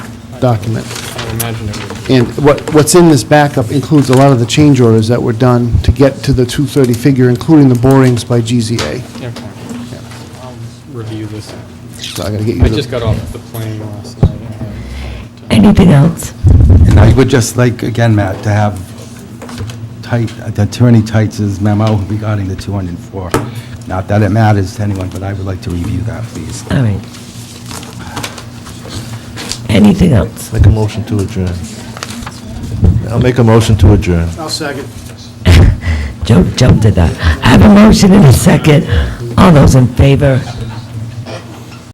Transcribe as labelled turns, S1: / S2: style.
S1: document.
S2: I would imagine it would.
S1: And what, what's in this backup includes a lot of the change orders that were done to get to the 230 figure, including the borings by GZA.
S2: Okay. I'll review this.
S1: So I gotta get you
S2: I
S1: the-
S2: just got off the plane last night. and, uh,
S3: Anything else?
S4: And I would just like, again, Matt, to have tight, uh, the Attorney Tights' memo regarding the 204. Not that it matters to anyone, but I would like to review that, please.
S3: All right. Anything else?
S5: Make a motion to adjourn. I'll make a motion to adjourn.
S1: I'll second.
S3: Joe jumped at that. I have a motion and a second. All those in favor?